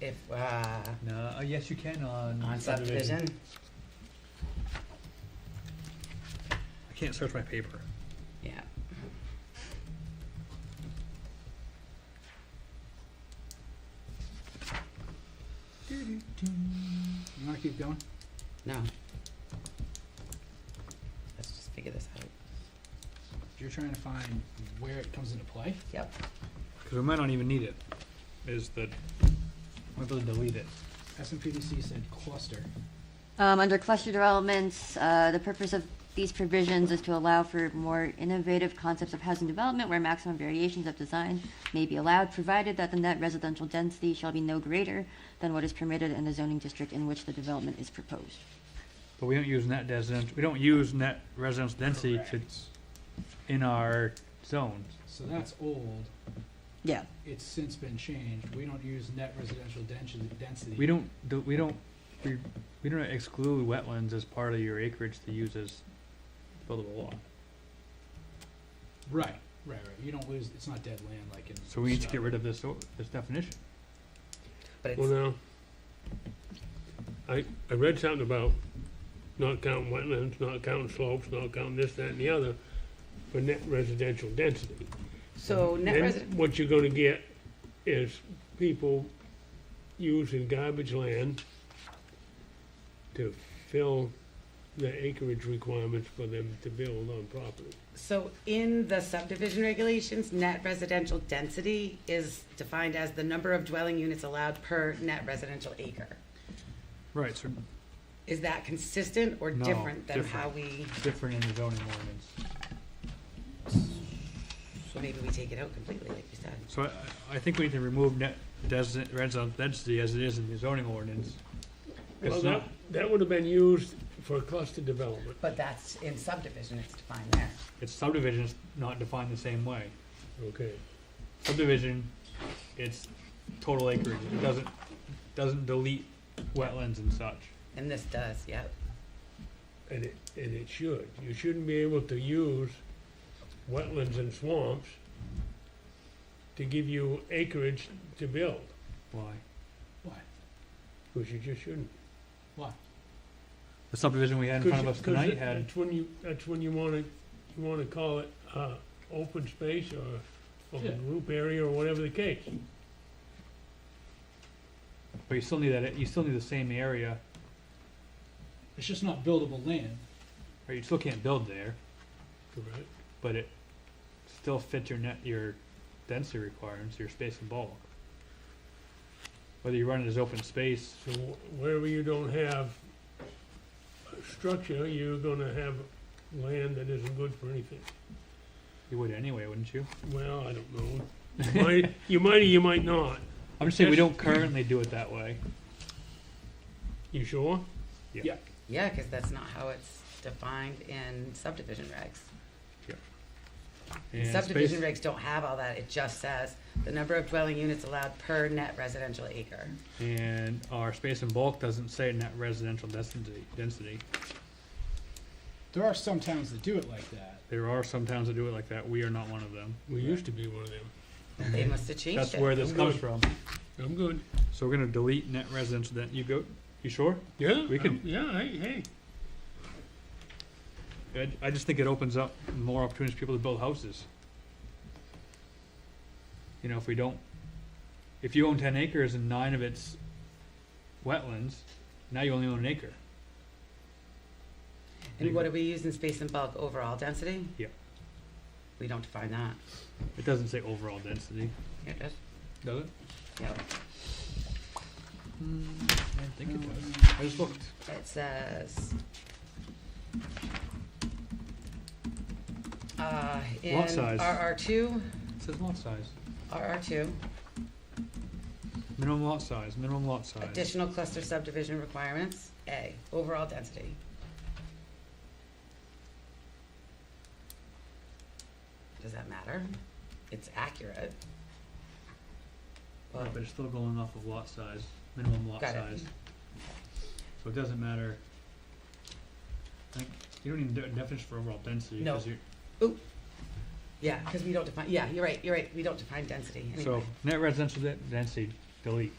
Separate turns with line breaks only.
if, uh,
No, uh, yes, you can on.
on subdivision?
I can't search my paper.
Yeah.
You wanna keep going?
No. Let's just figure this out.
You're trying to find where it comes into play?
Yep.
Cause we might not even need it, is the, might be able to delete it.
SMPDC said cluster.
Um, under cluster developments, uh, the purpose of these provisions is to allow for more innovative concepts of housing development where maximum variations of design may be allowed, provided that the net residential density shall be no greater than what is permitted in the zoning district in which the development is proposed.
But we don't use net residence, we don't use net residence density to,
Correct.
in our zones.
So that's old,
Yeah.
it's since been changed, we don't use net residential density, density.
We don't, do- we don't, we, we don't exclude wetlands as part of your acreage to use as buildable lot.
Right, right, right, you don't lose, it's not dead land like in.
So we need to get rid of this, o- this definition.
But
Well,
it's,
now, I, I read something about not counting wetlands, not counting slopes, not counting this, that, and the other for net residential density.
so net
Then
resident,
What you're gonna get is people using garbage land to fill the acreage requirements for them to build on property.
so in the subdivision regulations, net residential density is defined as the number of dwelling units allowed per net residential acre.
Right, so
Is that consistent or
No,
different than how we,
it's different in the zoning ordinance.
so maybe we take it out completely, like you said?
So I, I think we need to remove net desi- residential density as it is in the zoning ordinance.
Well,
It's
that,
not,
that would have been used for cluster development.
But that's in subdivision, it's defined there.
it's subdivision's not defined the same way.
Okay,
Subdivision, it's total acreage, it doesn't, doesn't delete wetlands and such.
And this does, yep.
and it, and it should. You shouldn't be able to use wetlands and swamps to give you acreage to build,
Why?
Why,
because you just shouldn't.
why?
The subdivision we had in front of us
'Cause- 'cause
tonight had,
That's when you, that's when you wanna, you wanna call it, uh, open space or
Yeah.
open group area or whatever the case.
but you still need that, you still need the same area,
It's just not buildable land,
or you still can't build there,
Correct.
but it still fits your net, your density requirements, your space and bulk. Whether you run it as open space
So wh- wherever you don't have a structure, you're gonna have land that isn't good for anything.
You would anyway, wouldn't you?
Well, I don't know. You might, you might or you might not.
I'm just saying we
Yes.
don't currently do it that way.
You sure?
Yeah, because that's not how it's defined in subdivision regs.
And
Subdivision
space-
regs don't have all that, it just says the number of dwelling units allowed per net residential acre.
And our space and bulk doesn't say net residential density, density.
there are some towns that do it like that.
There are some towns that do it like that. We are not one of them.
We used to be one of them.
They must have changed
Mm-hmm. That's
it.
where this
I'm
comes from.
I'm good.
So we're gonna delete net residential, then you go, you sure?
Yeah,
We
I'm-
can-
Yeah, hey, hey.
I, I just think it opens up more opportunities for people to build houses. You know, if we don't, if you own ten acres and nine of it's wetlands, now you only own an acre.
And what do we use in space and bulk, overall density?
Yeah.
We don't define that.
It doesn't say overall density.
Here it is.
Does it?
Yep. Mm.
I didn't think it does. I just looked.
It says. Uh, in
Lot size.
RR two,
It says lot size.
RR two,
Minimum lot size, minimum lot size.
additional cluster subdivision requirements, A, overall density. Does that matter? It's accurate.
Right, Oh, but it's still going off of lot size, minimum lot
Got it.
size. So it doesn't matter. I think, you don't even do a definition for overall density,
No.
cause you're,
Yeah, because we don't define, yeah, you're right, you're right, we don't define density anyway.
so net residential de- density, delete.